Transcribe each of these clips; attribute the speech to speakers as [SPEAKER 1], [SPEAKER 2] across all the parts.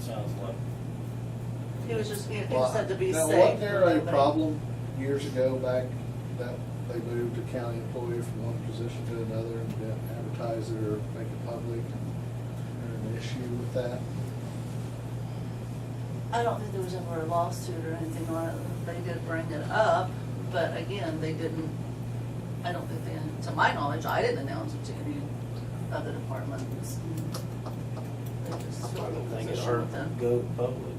[SPEAKER 1] sounds like.
[SPEAKER 2] It was just, it
[SPEAKER 3] Well,
[SPEAKER 2] it said to be
[SPEAKER 3] now,
[SPEAKER 2] safe.
[SPEAKER 3] Wasn't there a
[SPEAKER 2] but-
[SPEAKER 3] problem years ago back that they moved a county employee from one position to another and didn't advertise it or make it public? There an issue with that?
[SPEAKER 2] I don't think there was ever a lawsuit or anything on it. They did bring it up, but again, they didn't, I don't think they, to my knowledge, I didn't announce it to any other departments. They just
[SPEAKER 1] I
[SPEAKER 2] filled
[SPEAKER 1] don't
[SPEAKER 2] the
[SPEAKER 1] think it
[SPEAKER 2] position
[SPEAKER 1] hurt
[SPEAKER 2] with
[SPEAKER 1] to
[SPEAKER 2] them.
[SPEAKER 1] go public,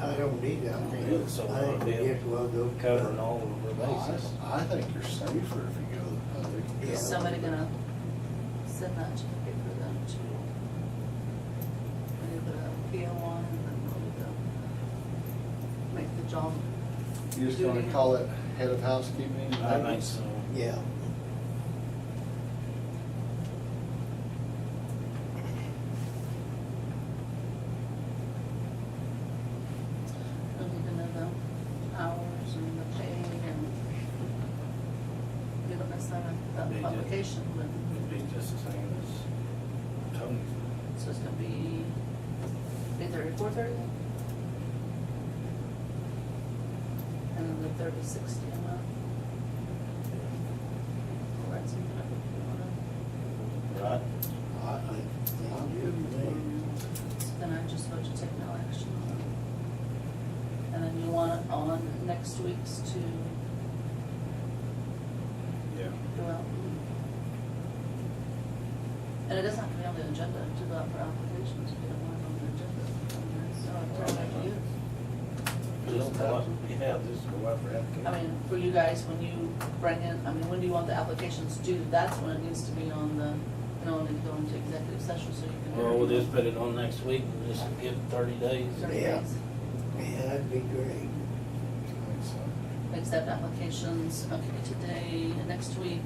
[SPEAKER 4] I don't need that. I think,
[SPEAKER 1] So,
[SPEAKER 4] I think we
[SPEAKER 1] uh,
[SPEAKER 4] get well go. Oh,
[SPEAKER 1] covering all of our
[SPEAKER 3] I,
[SPEAKER 1] bases.
[SPEAKER 3] I think you're safer if you go to the public.
[SPEAKER 4] Yeah.
[SPEAKER 2] Is somebody gonna send that to the paper then to? Maybe put a PO on and then we'll go make the job.
[SPEAKER 3] You just gonna call it head of housekeeping?
[SPEAKER 1] I think so.
[SPEAKER 4] Yeah.
[SPEAKER 2] Look into the hours and the pay and you don't necessarily have
[SPEAKER 1] They
[SPEAKER 2] that
[SPEAKER 1] did.
[SPEAKER 2] publication, but
[SPEAKER 1] It'd be just the same as Tony's.
[SPEAKER 2] so it's gonna be eight thirty, four thirty? And then the thirty, sixty a month. Well, that's even if you wanna-
[SPEAKER 1] Right?
[SPEAKER 4] I think, I'm good with that.
[SPEAKER 2] so Then I just vote to take no action on it. And then you want it on next week's to
[SPEAKER 1] Yeah.
[SPEAKER 2] go out. And it doesn't have to be on the agenda to go out for applications, if you don't want it on the agenda. I mean, So I turn it to you.
[SPEAKER 1] Just go out, yeah, just go out for application.
[SPEAKER 2] I mean, for you guys, when you bring in, I mean, when do you want the applications due? That's when it needs to be on the, you know, and go into executive session so you can.
[SPEAKER 1] Well, we'll just put it on next week, and just give it thirty days.
[SPEAKER 2] Thirty
[SPEAKER 4] Yeah.
[SPEAKER 2] days.
[SPEAKER 4] Yeah, that'd be great.
[SPEAKER 3] I think so.
[SPEAKER 2] accept applications, okay, today, next week.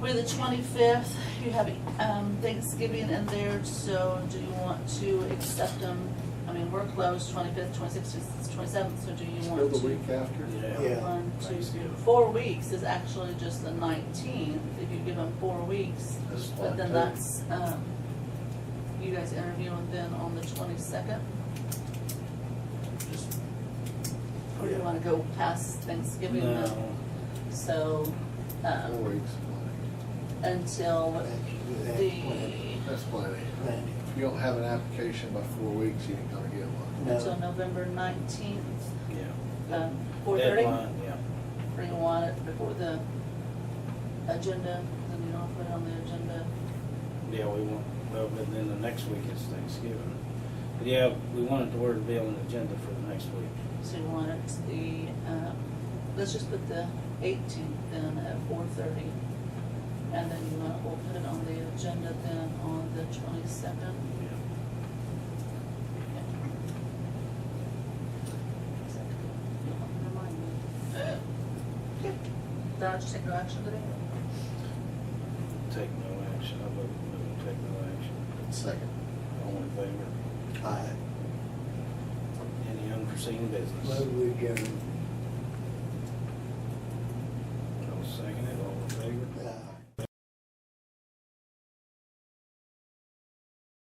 [SPEAKER 2] We're the twenty-fifth, you have, um, Thanksgiving in there, so do you want to accept them? I mean, we're closed twenty-fifth, twenty-sixth, twenty-seventh, so do you
[SPEAKER 3] Go
[SPEAKER 2] want
[SPEAKER 3] the
[SPEAKER 2] to?
[SPEAKER 3] week after?
[SPEAKER 1] Yeah.
[SPEAKER 4] Yeah.
[SPEAKER 2] One, two,
[SPEAKER 1] Thanksgiving.
[SPEAKER 2] four weeks is actually just the nineteenth, if you give them four weeks,
[SPEAKER 3] That's
[SPEAKER 2] but
[SPEAKER 3] fine,
[SPEAKER 2] then
[SPEAKER 3] too.
[SPEAKER 2] that's, um, you guys interviewing then on the twenty-second?
[SPEAKER 1] Just-
[SPEAKER 2] Or do you wanna go past Thanksgiving? then?
[SPEAKER 1] No,
[SPEAKER 2] So,
[SPEAKER 3] Four
[SPEAKER 2] um,
[SPEAKER 3] weeks, plenty.
[SPEAKER 2] until
[SPEAKER 4] That's, that's
[SPEAKER 2] the,
[SPEAKER 4] plenty.
[SPEAKER 3] That's plenty.
[SPEAKER 4] Plenty.
[SPEAKER 3] If you don't have an application by four weeks, you ain't gonna get one.
[SPEAKER 2] until
[SPEAKER 4] No.
[SPEAKER 2] November nineteenth,
[SPEAKER 1] yeah.
[SPEAKER 2] um, four thirty?
[SPEAKER 1] Deadline, yeah.
[SPEAKER 2] Or you want it before the agenda, then you don't put it on the agenda.
[SPEAKER 1] Yeah, we want, well, but then the next week is Thanksgiving. But yeah, we wanted to word to be on the agenda for the next week.
[SPEAKER 2] So you want it the, um, let's just put the eighteenth then at four thirty. And then you want, we'll put it on the agenda then on the twenty-second.
[SPEAKER 1] Yeah.
[SPEAKER 2] Did I just take no action today?
[SPEAKER 1] Take no action, I vote we don't take no action.
[SPEAKER 3] Second.
[SPEAKER 1] All in favor?
[SPEAKER 4] I
[SPEAKER 1] Any unforeseen business?
[SPEAKER 4] move we adjourn.